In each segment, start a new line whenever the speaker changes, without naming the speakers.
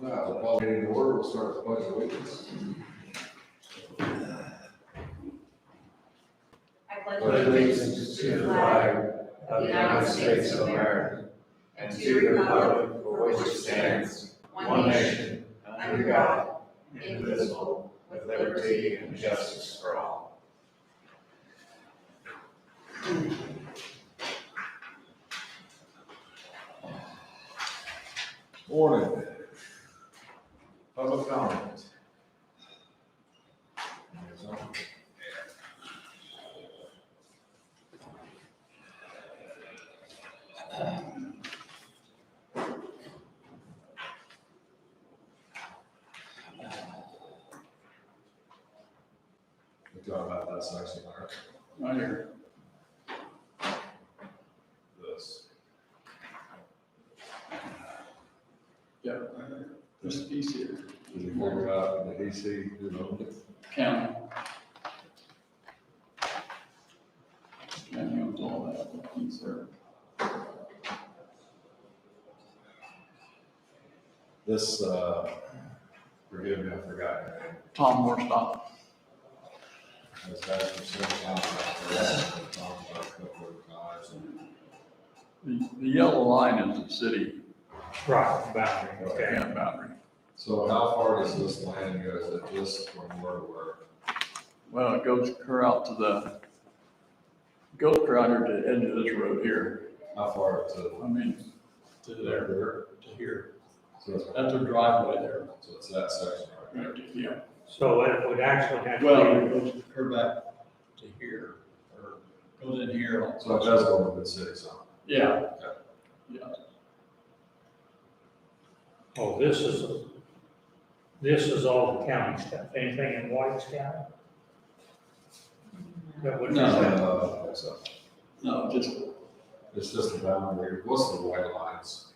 Meeting in order, we'll start with pledge of allegiance.
I pledge
pledge allegiance to the flag of the United States of America and to the republic for which it stands, one nation, under God, indivisible, with liberty and justice for all.
Morning. Public comment. We talked about that section, Mark.
Right here.
This.
Yeah, right here. This piece here,
Did you work it out in the AC, you know?
county. County owns all that piece there.
This, uh, forgive me, I forgot.
Tom Morstop.
This guy's from Silver Town, out there, we've talked about it a couple of times, and
The, the yellow line is the city
Right, boundary, okay.
camp boundary.
So how far does this land go? Is it just from where to where?
Well, it goes clear out to the, goes clear out here to the edge of this road here.
How far to?
I mean, to there,
There.
to here.
So it's,
That's a driveway there.
so it's that section right
Right, to here.
So it would actually have. to be-
Well, it goes clear back to here, or goes in here.
there. So it does go with the city, so.
Yeah,
Oh, this is, this is all the county stuff, anything in White's County? That would.
No.
Uh, so
no, just
It's just a boundary. What's the white lines?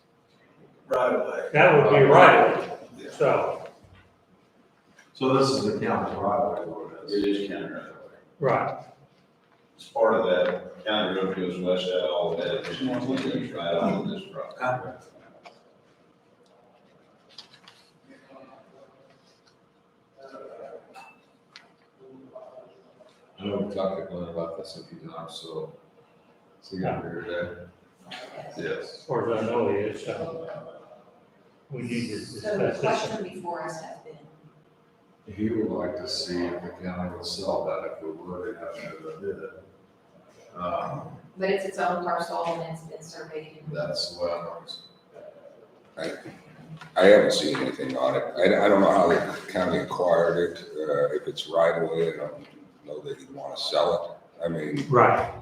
right away.
That would be right, so,
So this is the county right away, what it is?
It is county right away.
right,
It's part of that county road goes west out all the way to It's right on this property.
I know we talked to Glenn about this a few times, so. So you got to hear that? Yes.
as far as I know, it is, so. We need to
So the
discuss this.
question before us has been,
He would like to see if the county would sell that if we would, have to do it. Um,
but it's its own parcel and it's been surveyed.
That's what I'm,
I haven't seen anything on it. I, I don't know how the county acquired it, uh, if it's right away, I don't know that you'd want to sell it. I mean,
Right,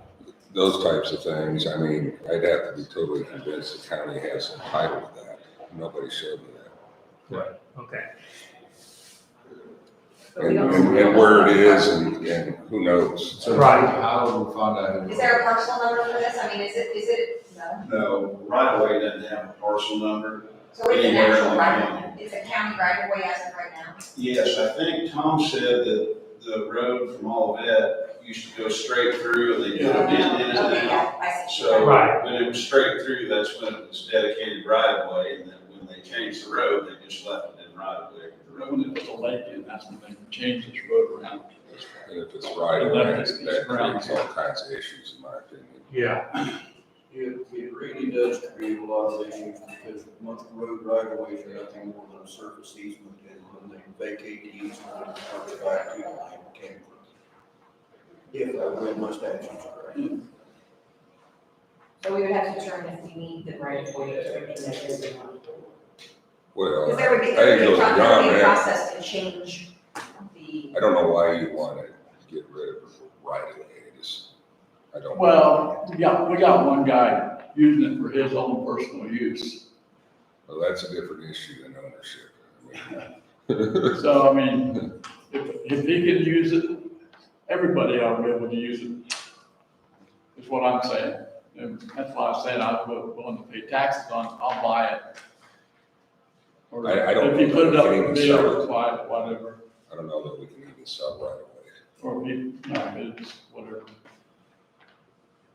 those types of things, I mean, I'd have to be totally convinced the county has some title to that. Nobody showed me that.
okay,
but we
And,
don't-
and- and where it is and, and who knows.
so
Right.
how do we find out? who-
Is there a parcel number for this? I mean, is it, is it, no?
No, right away doesn't have a parcel number.
So it's an
Anywhere
actual
in
right
the
of, it's a county right of way as of right now.
Yes, I think Tom said that the road from Olivet used to go straight through and they put a bend in it
Okay,
now.
yeah, I see.
So
Right.
when it was straight through, that's when it was dedicated right away. And then when they changed the road, they just left it in right away. The road
When it was a lake, and that's when they changed this road around.
And if it's right away, that creates all kinds of issues in my opinion.
yeah,
It, it really does create a lot of issues because most road right of ways are nothing more than a surface easement and when they vacate the easement, it comes back to the land came from. If I read my statutes correctly.
So we would have to determine if we need the right of way to remain that is or not.
Well,
Because
I
there would be,
think
there would be
it
a
goes
pro- there would
beyond
be a
that.
process to change the,
I don't know why you want to get rid of it right away. I just, I don't.
Well, we got, we got one guy using it for his own personal use.
Well, that's a different issue than ownership. I mean,
So, I mean, if, if he can use it, everybody ought to be able to use it, is what I'm saying. And that's why I said I'm willing to pay taxes on, I'll buy it. Or
I- I don't
If you put it up,
think
for
we can
bid
sell
or buy it, whatever,
I don't know that we can even sell right away.
or if, you- no, it's whatever.